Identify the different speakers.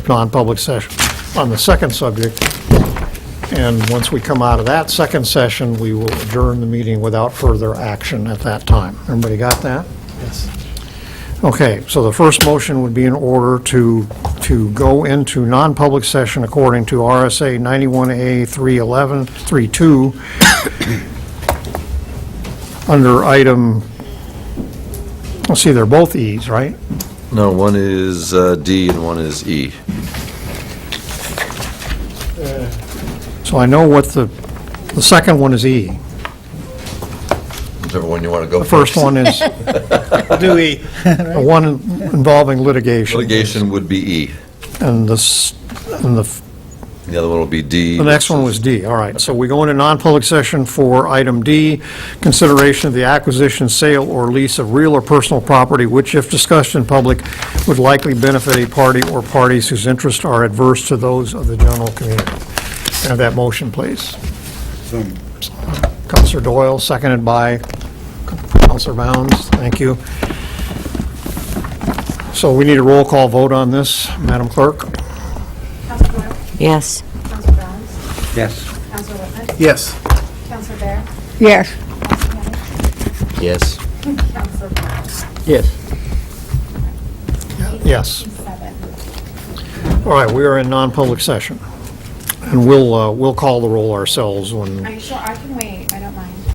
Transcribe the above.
Speaker 1: non-public session on the second subject. And once we come out of that second session, we will adjourn the meeting without further action at that time. Everybody got that? Okay, so the first motion would be in order to, to go into non-public session according to RSA 91A 311, 32, under item, let's see, they're both E's, right?
Speaker 2: No, one is uh, D and one is E.
Speaker 1: So I know what the, the second one is E.
Speaker 2: Whichever one you want to go
Speaker 1: The first one is the
Speaker 3: Do we?
Speaker 1: one involving litigation.
Speaker 2: Litigation would be E.
Speaker 1: And the, s- and the f-
Speaker 2: The other one will be D.
Speaker 1: The next one was D, all right. So we go into non-public session for item D, consideration of the acquisition, sale, or lease of real or personal property, which if discussed in public, would likely benefit a party or parties whose interests are adverse to those of the general community. Can I Have that motion, please. Counselor Doyle, seconded by Counselor Bounds, thank you. So we need a roll call vote on this, Madam Clerk?
Speaker 4: Counselor Doyle?
Speaker 5: Yes.
Speaker 4: Counselor Barnes?
Speaker 3: Yes.
Speaker 4: Counselor Whitman?
Speaker 3: Yes.
Speaker 4: Counselor Bear?
Speaker 5: Yes.
Speaker 3: Yes.
Speaker 4: Counselor Barnes?
Speaker 3: Yes.
Speaker 1: Yes.
Speaker 4: Seven.
Speaker 1: All right, we are in non-public session, and we'll, uh, we'll call the roll ourselves when,
Speaker 4: Are you sure I can wait? I